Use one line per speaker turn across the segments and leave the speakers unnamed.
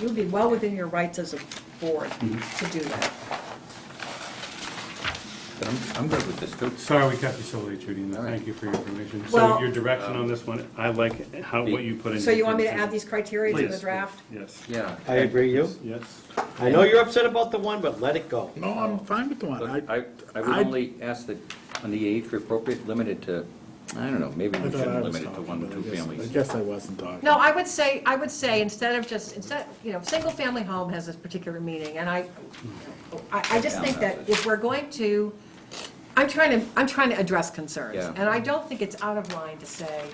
you would be well within your rights as a board
Mhm.
to do that.
But I'm, I'm good with this too.
Sorry we cut you so late, Judy, and
All right.
thank you for your information. So
Well-
your direction on this one, I like how, what you put in.
So you want me to add
decision.
these criteria to the
Please.
draft?
Yes,
Yeah.
I agree you.
yes.
I know you're upset about the one, but let it go.
No, I'm fine with the one.
Look,
I,
I, I would
I-
only ask that on the age for appropriate, limited to, I don't know, maybe
I
we
thought I
shouldn't
was
limit it to
talking,
one,
but
or
I
two
guess- I
families.
guess I wasn't talking.
No, I would say, I would say, instead of just, instead, you know, single-family home has this particular meaning, and I, I, I just think that if we're going to, I'm trying to, I'm trying to address concerns.
Yeah.
And I don't think it's out of line to say,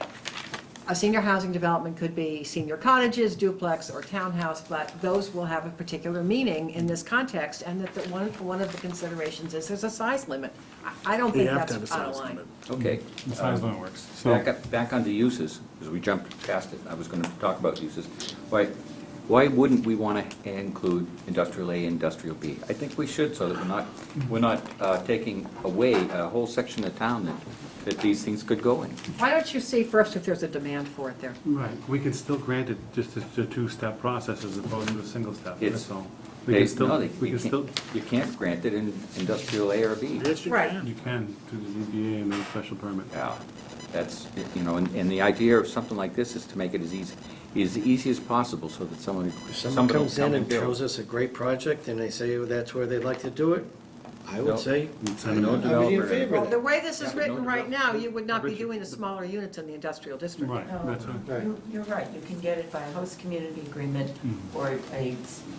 a senior housing development could be senior cottages, duplex, or townhouse, but those will have a particular meaning in this context, and that the one, one of the considerations is there's a size limit. I- I don't
You
think
have to have a
that's out of
size
line.
limit.
Okay.
The size limit works. So,
Back up, back onto uses, because we jumped past it, I was gonna talk about uses. Why, why wouldn't we wanna include industrial A, industrial B? I think we should, so that we're not, we're not uh, taking away a whole section of town that, that these things could go in.
Why don't you see first if there's a demand for it there?
right, we can still grant it just as a two-step process as opposed to a single step,
It's-
that's all. We
They-
can
no,
still,
they-
we
you
can still,
can't- You can't grant it in industrial A or B.
Yes, you
Right.
can.
you can do the ZBA and the special permit.
Yeah, that's, you know, and, and the idea of something like this is to make it as easy, as easy as possible so that someone,
If someone
somebody will
comes
come
in
and
and shows
build.
us a great project and they say that's where they'd like to do it, I
No.
would say, I
Send them
don't,
to
I would be in
developer.
favor
Well,
of
the
that.
way this is
Yeah,
written
no
right now, you would not be
Richard.
doing the smaller units in the industrial district.
Right, that's right.
Right.
You- You're right, you can get it by a host community agreement or a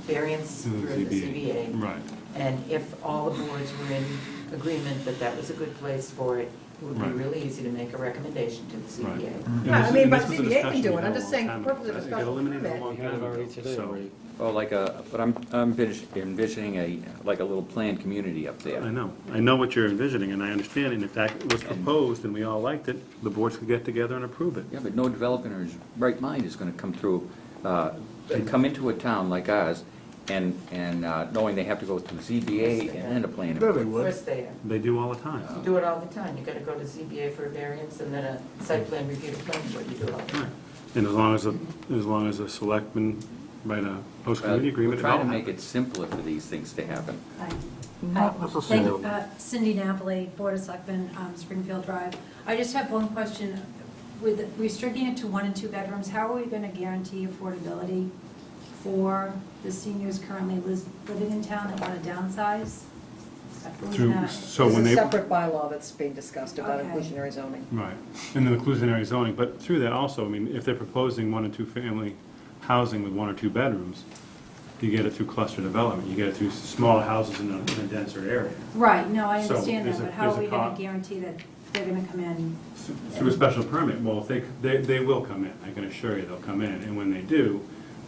variance
To Mm-hmm. the
through the
ZBA.
CBA.
Right,
And if all the boards were in agreement that that was a good place for it, it would be
Right.
really easy to make a recommendation to the
right.
CBA.
And
Yeah, I
this-
mean,
and
but
this was
ZBA
a
can
discussion
do
we
it.
had
I'm
a
just
long
saying
time
for purpose of
ago. It got
special
eliminated a
permit,
long
You had it
time
already
ago,
today,
so-
Ray.
Oh, like a, but I'm, I'm envis- envisioning a, like a little planned community up
I
there.
know, I know what you're envisioning, and I understand, and if that was proposed and we all liked it, the boards could get together and approve it.
Yeah, but no developer in his right mind is gonna come through, uh, and come into a town like ours and, and, uh, knowing they have to go through ZBA and then a planning.
There they
board.
Of
would.
course they are.
They do all the
You
time.
do it all the time. You gotta go to CBA for a variance and then a site plan review to planning board, you do it all the time.
Right. And as long as, the as long as the selectmen write a
Uh,
post-community
We're
agreement, it
trying
all
to make
happens.
it simpler for these things to happen.
Hi.
Not
Hi.
necessarily.
Thank- uh, Cindy Napoli, Board of Selectmen, um, Springfield Drive. I just have one question. With restricting it to one and two bedrooms, how are we going to guarantee affordability for the seniors currently lis- living in town that want to downsize? Who's
Through,
not-
so
There's
when
a
they,
separate bylaw that's being discussed about
Okay.
inclusionary zoning.
right, and then inclusionary zoning, but through that also, I mean, if they're proposing one and two family housing with one or two bedrooms, you get it through cluster development, you get it through smaller houses in a in a denser area.
Right, no, I
So
understand
there's
that,
a-
but how
there's
are
a
we going
con-
to guarantee that they're going to come in?
through a special permit, well, if they, they, they will come in, I can assure you, they'll come in, and when they do,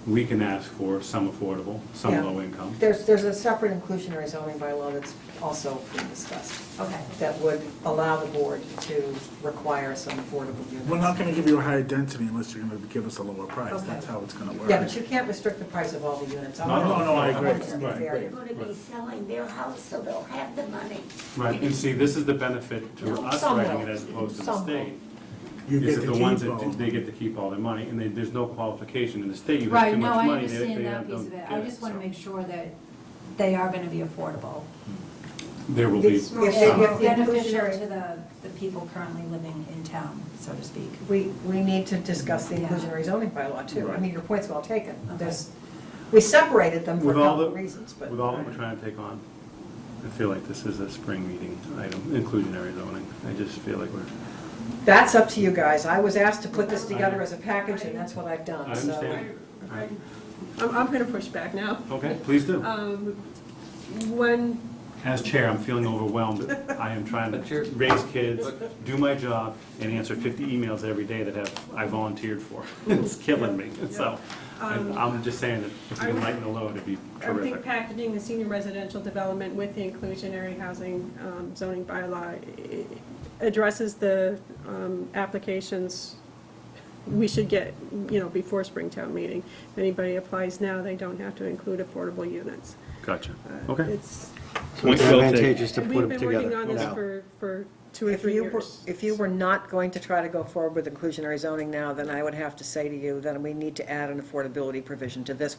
we can ask for some affordable, some
Yeah.
low income.
There's, there's a separate inclusionary zoning bylaw that's also being discussed
Okay.
that would allow the board to require some affordable
We're
units.
not gonna give you a higher density unless you're gonna give us a lower price.
Okay.
That's how it's gonna work.
Yeah, but you can't restrict the price of all the units. I
No, no,
wanna-
no, I
wanna
agree.
keep it
Right,
fair.
right.
They're gonna be selling their house, so they'll have the money.
Right, and see, this is the benefit to us
Some
writing
will.
it as opposed to the
Some will.
state.
You
Is
get
that
to
the ones
keep
that, do-
all.
they get to keep all their money, and they, there's no qualification in the state, you have
Right,
too
no,
much
I
money, they, they
understand that
have-
piece
don't
of it.
get
I just
it,
want
so.
to make sure that they are going to be affordable.
There will be,
This- If they- if the
Beneficial to
inclusionary-
the, the people currently living in town, so to speak.
We, we need to discuss the inclusionary zoning bylaw too. I
Right.
mean, your point's well taken. There's, we separated them for a
With all
couple of
the-
reasons, but.
with all that we're trying to take on, I feel like this is a spring meeting item, inclusionary zoning, I just feel like we're.
That's up to you guys. I was asked to put this together as a package, and that's what I've
I
done, so.
understand. Right.
I'm, I'm gonna push back now.
Okay, please do.
Um, One,
As chair, I'm feeling overwhelmed. I am trying
But you're-
to raise kids, do my job, and answer 50 emails every day that have, I volunteered for. It's killing me, so I- I'm just saying that if we can lighten the load, it'd be
Um, I think
terrific.
packaging the senior residential development with the inclusionary housing um, zoning bylaw i- addresses the um, applications we should get, you know, before Springtown meeting. If anybody applies now, they don't have to include affordable units.
Gotcha.
Uh,
Okay.
It's,
It's advantageous to put
we've
them
been working
together
on this
now.
for, for two or
If
three
you were,
years.
if you were not going to try to go forward with inclusionary zoning now, then I would have to say to you, then we need to add an affordability provision to this